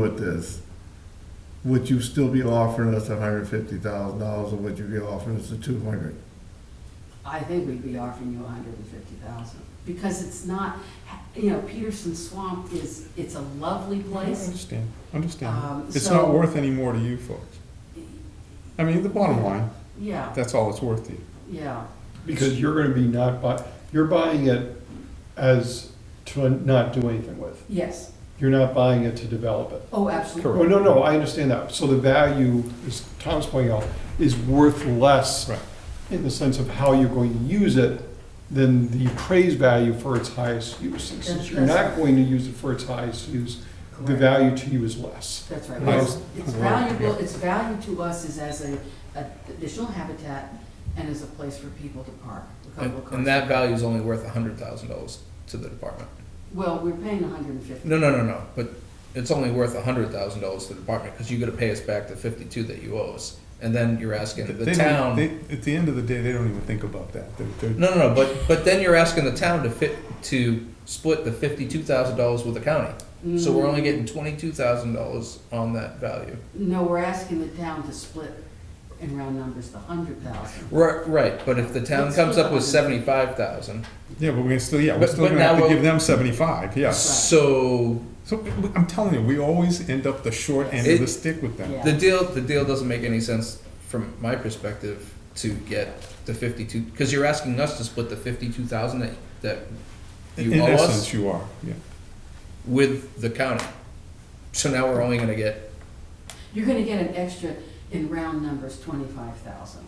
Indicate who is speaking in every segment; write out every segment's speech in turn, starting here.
Speaker 1: with this, would you still be offering us hundred fifty thousand dollars or would you be offering us the two hundred?
Speaker 2: I think we'd be offering you a hundred and fifty thousand, because it's not, you know, Peterson Swamp is, it's a lovely
Speaker 3: I
Speaker 2: place.
Speaker 3: understand, understand.
Speaker 2: Um,
Speaker 3: It's
Speaker 2: so-
Speaker 3: not worth any more to you folks. I mean, the bottom line,
Speaker 2: Yeah,
Speaker 3: that's all it's worth to you.
Speaker 2: yeah,
Speaker 4: Because you're gonna be not buy, you're buying it as to not do anything with.
Speaker 2: yes,
Speaker 4: You're not buying it to develop it.
Speaker 2: oh, absolutely,
Speaker 3: Correct.
Speaker 4: Oh, no, no, I understand that. So the value, as Tom's pointing out, is worth less
Speaker 3: Right.
Speaker 4: in the sense of how you're going to use it than the appraised value for its highest use. And since you're not going to use it for its highest use, the
Speaker 2: Correct.
Speaker 4: value to you is less.
Speaker 2: that's right.
Speaker 3: Right.
Speaker 2: It's it's
Speaker 3: Right,
Speaker 2: valuable,
Speaker 3: yeah.
Speaker 2: its value to us is as a, a additional habitat and as a place for people to park. a
Speaker 5: And,
Speaker 2: couple of cars.
Speaker 5: and that value is only worth a hundred thousand dollars to the department.
Speaker 2: Well, we're paying a hundred and fifty,
Speaker 5: No, no, no, no. But it's only worth a hundred thousand dollars to the department because you got to pay us back the fifty-two that you owe us, and then you're asking
Speaker 3: They
Speaker 5: the
Speaker 3: don't-
Speaker 5: town.
Speaker 3: they- At the end of the day, they don't even think about that. They're- they're-
Speaker 5: no, no, no. But but then you're asking the town to fit to split the fifty-two thousand dollars with the county. So we're only getting twenty-two thousand dollars on that value.
Speaker 2: Mm, no, we're asking the town to split in round numbers the hundred thousand.
Speaker 5: Right, right. But if the town
Speaker 2: Let's
Speaker 5: comes
Speaker 2: split
Speaker 5: up with
Speaker 2: the
Speaker 5: seventy-five thousand,
Speaker 3: Yeah, but we're still, yeah, we're
Speaker 5: But-
Speaker 3: still
Speaker 5: but
Speaker 3: gonna have
Speaker 5: now
Speaker 3: to
Speaker 5: we'll-
Speaker 3: give them seventy-five, yeah.
Speaker 5: so
Speaker 3: So we- we- I'm telling you, we always end up the short end of
Speaker 5: It-
Speaker 3: the stick with them.
Speaker 2: Yeah.
Speaker 5: The deal, the deal doesn't make any sense from my perspective to get the fifty-two, because you're asking us to split the fifty-two thousand that, that
Speaker 3: In
Speaker 5: you owe
Speaker 3: essence,
Speaker 5: us
Speaker 3: you are, yeah.
Speaker 5: with the county. So now we're only gonna get,
Speaker 2: You're gonna get an extra, in round numbers, twenty-five thousand.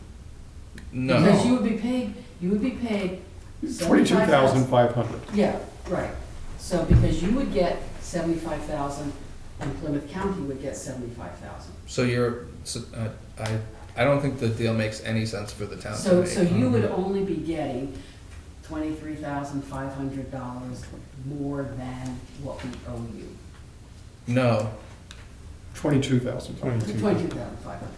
Speaker 2: Because you
Speaker 5: no,
Speaker 2: would be paid, you would be paid.
Speaker 4: Twenty-two thousand
Speaker 2: 75,000.
Speaker 4: five hundred.
Speaker 2: Yeah, right. So because you would get seventy-five thousand and Plymouth County would get seventy-five thousand.
Speaker 5: so you're, so, uh, I, I don't think the deal makes any sense for the town to
Speaker 2: So, so
Speaker 5: make.
Speaker 2: you would only be getting twenty-three thousand five hundred dollars more than what we owe you.
Speaker 3: Mm-hmm.
Speaker 5: No,
Speaker 4: Twenty-two thousand five hundred.
Speaker 2: Twenty-two thousand five hundred.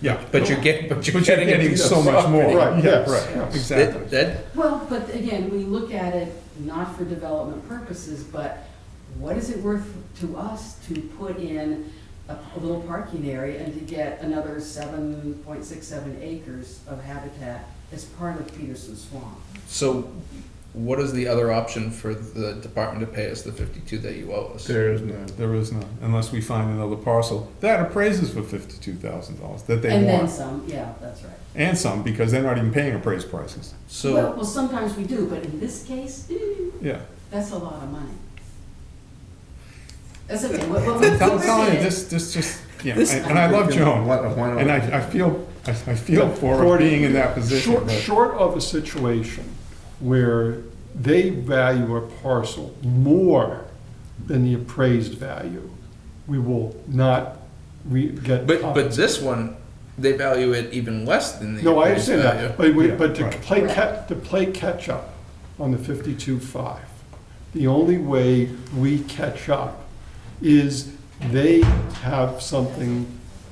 Speaker 3: Yeah.
Speaker 5: but you're getting, but you're
Speaker 3: But you're
Speaker 5: getting. it
Speaker 3: getting
Speaker 5: through
Speaker 3: so
Speaker 5: the
Speaker 3: much more.
Speaker 5: property.
Speaker 4: Right,
Speaker 3: Yeah,
Speaker 4: yes,
Speaker 3: right,
Speaker 4: yes.
Speaker 3: exactly.
Speaker 5: That, that,
Speaker 2: Well, but again, we look at it not for development purposes, but what is it worth to us to put in a, a little parking area and to get another seven point six seven acres of habitat as part of Peterson Swamp?
Speaker 5: so what is the other option for the department to pay us the fifty-two that you owe us?
Speaker 1: There is none.
Speaker 3: There is none, unless we find another parcel that appraises for fifty-two thousand dollars that they
Speaker 2: And then
Speaker 3: want.
Speaker 2: some, yeah, that's right.
Speaker 3: And some, because they're not even paying appraised prices.
Speaker 5: So.
Speaker 2: Well, well, sometimes we do, but in this case, eh,
Speaker 3: Yeah.
Speaker 2: that's a lot of money. That's okay, what, what we
Speaker 3: I'm tell- telling you,
Speaker 2: did,
Speaker 3: this, this just, yeah, I- and I love Joan,
Speaker 1: What, why not?
Speaker 3: and I, I feel, I I feel for her
Speaker 4: Short-
Speaker 3: being in that position,
Speaker 4: Short,
Speaker 3: but
Speaker 4: short of a situation where they value a parcel more than the appraised value, we will not re, get.
Speaker 5: But but this one, they value it even less than the.
Speaker 4: No, I
Speaker 5: appraised
Speaker 4: understand
Speaker 5: value.
Speaker 4: that, but we,
Speaker 3: Yeah,
Speaker 4: but to
Speaker 3: right.
Speaker 4: play cat, to play catch-up on the fifty-two five, the only way we catch up is they have something,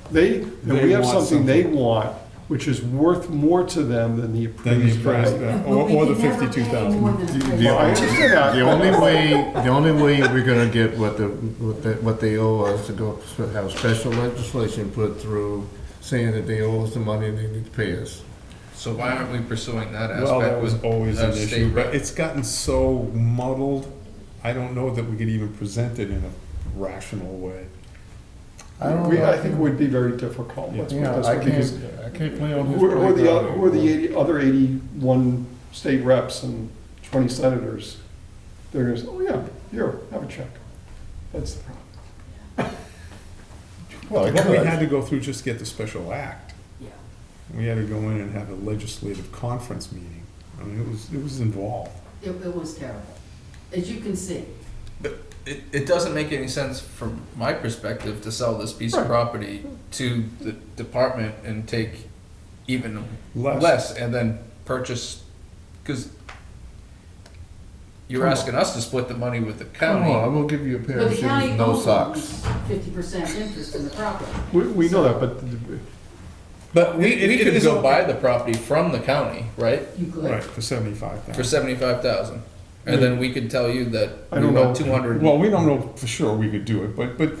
Speaker 4: they, that we
Speaker 3: They
Speaker 4: have
Speaker 3: want
Speaker 4: something they want, which is worth more to them than the
Speaker 3: then the
Speaker 4: appraised
Speaker 3: appraised,
Speaker 4: value.
Speaker 3: value-
Speaker 2: But
Speaker 3: or,
Speaker 2: we
Speaker 3: or the
Speaker 2: can never pay
Speaker 3: fifty-two
Speaker 2: more
Speaker 3: thousand.
Speaker 2: than-
Speaker 1: The- the-
Speaker 4: Well, I understand that.
Speaker 1: The only way, the only way we're gonna get what the, what the, what they owe us to go, have special legislation put through saying that they owe us the money and they need to pay us.
Speaker 5: So why aren't we pursuing that aspect?
Speaker 3: Well, that was
Speaker 5: with-
Speaker 3: always
Speaker 5: of
Speaker 3: an issue,
Speaker 5: state
Speaker 3: but
Speaker 5: rep?
Speaker 3: it's gotten so muddled, I don't know that we could even present it in a rational way.
Speaker 1: I don't
Speaker 4: We,
Speaker 1: know.
Speaker 4: I think it would be very difficult, let's put it
Speaker 1: Yeah,
Speaker 4: this
Speaker 1: I
Speaker 4: way, because
Speaker 1: can't, I can't play on his.
Speaker 4: Who are, who are the, oth-
Speaker 1: playground.
Speaker 4: who are the 80 other eighty-one state reps and twenty senators? They're gonna say, oh yeah, here, have a check. That's the problem.
Speaker 1: Well, I
Speaker 3: What we had
Speaker 1: could.
Speaker 3: to go through, just get the special act.
Speaker 2: yeah,
Speaker 3: We had to go in and have a legislative conference meeting. I mean, it was, it was involved.
Speaker 2: it, it was terrible, as you can see.
Speaker 5: It, it doesn't make any sense from my perspective to sell this piece of
Speaker 4: Right.
Speaker 5: property to the department and take even
Speaker 3: Less.
Speaker 5: less and then purchase, because you're
Speaker 3: Come on.
Speaker 5: asking us to split the money with the
Speaker 1: Come on, I
Speaker 5: county.
Speaker 1: will give you a pair
Speaker 2: But
Speaker 1: of
Speaker 2: the
Speaker 1: shoes,
Speaker 2: county
Speaker 1: no socks.
Speaker 2: Fifty percent interest in the property.
Speaker 4: We, we know that, but the-
Speaker 5: But we,
Speaker 3: It-
Speaker 5: we
Speaker 3: it
Speaker 5: could
Speaker 3: is
Speaker 5: go
Speaker 3: okay.
Speaker 5: buy the property from the county, right?
Speaker 2: You
Speaker 3: Right,
Speaker 2: could,
Speaker 3: for seventy-five
Speaker 5: For
Speaker 3: thousand.
Speaker 5: seventy-five thousand. And then we could tell you that
Speaker 4: I
Speaker 5: we
Speaker 4: don't
Speaker 5: want
Speaker 4: know.
Speaker 5: two hundred.
Speaker 3: Well, we don't know for sure we could do it, but, but